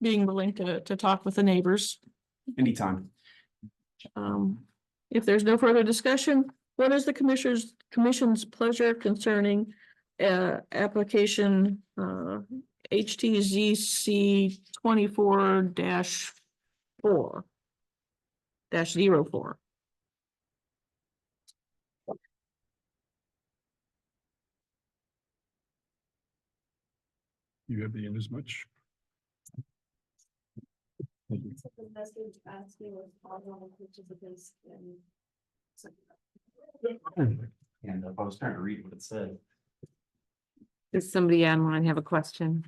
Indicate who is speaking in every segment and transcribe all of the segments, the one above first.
Speaker 1: being willing to, to talk with the neighbors.
Speaker 2: anytime.
Speaker 1: Um, if there's no further discussion, what is the commissioners, commission's pleasure concerning uh, application uh, HTZC twenty-four dash four dash zero four?
Speaker 3: You have the end as much.
Speaker 4: So the message asking was followed on the participants and. so-
Speaker 2: And uh, I was trying to read what it said.
Speaker 5: Does somebody online have a question?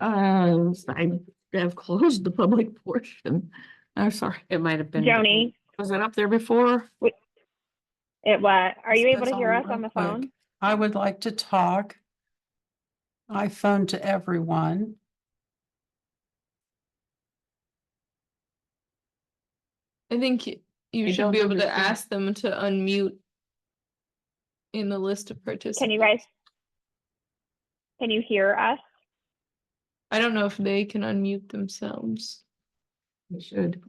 Speaker 1: Uh, I have closed the public portion. I'm sorry,
Speaker 5: It might have been.
Speaker 6: Joni,
Speaker 1: was it up there before?
Speaker 6: it what? Are you able
Speaker 7: That's
Speaker 6: to hear
Speaker 7: all
Speaker 6: us on the
Speaker 7: real quick.
Speaker 6: phone?
Speaker 7: I would like to talk. I phoned to everyone.
Speaker 8: I think y-
Speaker 5: I
Speaker 8: you should
Speaker 5: don't
Speaker 8: be able to
Speaker 5: understand.
Speaker 8: ask them to unmute in the list of participants.
Speaker 6: Can you guys? Can you hear us?
Speaker 8: I don't know if they can unmute themselves.
Speaker 1: We should.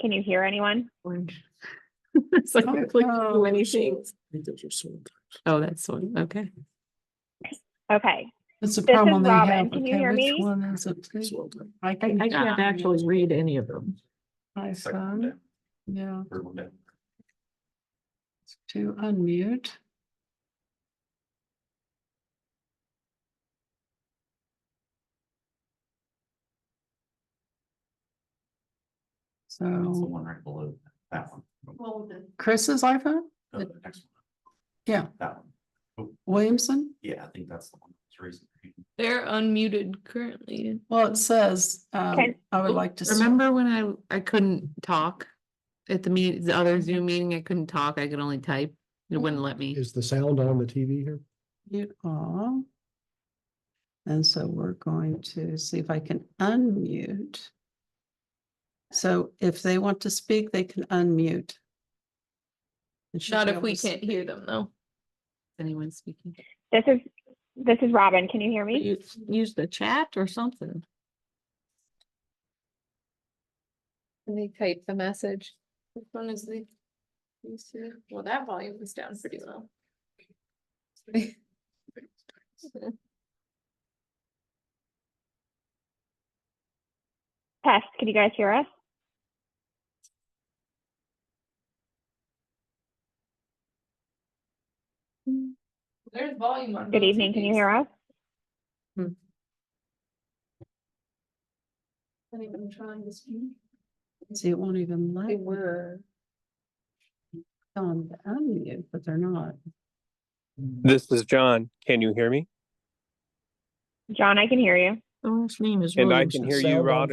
Speaker 6: Can you hear anyone?
Speaker 5: Orange.
Speaker 1: It's like we
Speaker 7: Oh,
Speaker 1: clicked too
Speaker 7: no.
Speaker 1: many things.
Speaker 5: Oh, that's one, okay.
Speaker 6: Okay, This
Speaker 7: It's a
Speaker 6: is
Speaker 7: problem they have.
Speaker 6: Robin. Can you
Speaker 7: Okay,
Speaker 6: hear
Speaker 7: which
Speaker 6: me?
Speaker 7: one is it, please? I
Speaker 1: I, I
Speaker 7: hear
Speaker 1: can't actually read any of them.
Speaker 7: My phone,
Speaker 2: Second
Speaker 7: yeah,
Speaker 2: one down.
Speaker 7: to unmute.
Speaker 2: It's the
Speaker 7: So
Speaker 2: one right below that one.
Speaker 7: Chris's iPhone,
Speaker 2: Uh, the next one.
Speaker 7: Yeah.
Speaker 2: That one.
Speaker 7: Williamson?
Speaker 2: Yeah, I think that's the one. that's raising.
Speaker 8: They're unmuted currently.
Speaker 7: Well, it says, um,
Speaker 6: Can-
Speaker 7: I would like to. s-
Speaker 5: Remember when I, I couldn't talk? At the meet, the
Speaker 8: Mm-hmm.
Speaker 5: other Zoom meeting, I couldn't talk, I could only type, it wouldn't let me.
Speaker 9: Is the sound on the TV here?
Speaker 7: Mute all. And so we're going to see if I can unmute. So if they want to speak, they can unmute. It should
Speaker 8: Not
Speaker 7: be
Speaker 8: if
Speaker 7: able
Speaker 8: we
Speaker 7: to s-
Speaker 8: can't hear them though.
Speaker 5: Anyone speaking?
Speaker 6: this is, this is Robin. Can you hear me?
Speaker 1: You use the chat or something.
Speaker 8: Can they type the message? Which one is the? you see? Well, that volume is down pretty low.
Speaker 6: Test, can you guys hear us?
Speaker 8: There's volume on.
Speaker 6: Good evening, can you hear us?
Speaker 8: Anyone trying to speak?
Speaker 7: See, it won't even let
Speaker 8: They
Speaker 7: me
Speaker 8: were.
Speaker 7: on the unmute, but they're not.
Speaker 10: This is John. Can you hear me?
Speaker 6: John, I can hear you.
Speaker 1: The last name is.
Speaker 10: And I
Speaker 1: Williamson.
Speaker 10: can hear
Speaker 9: Sound
Speaker 10: you,
Speaker 9: on
Speaker 10: Rob.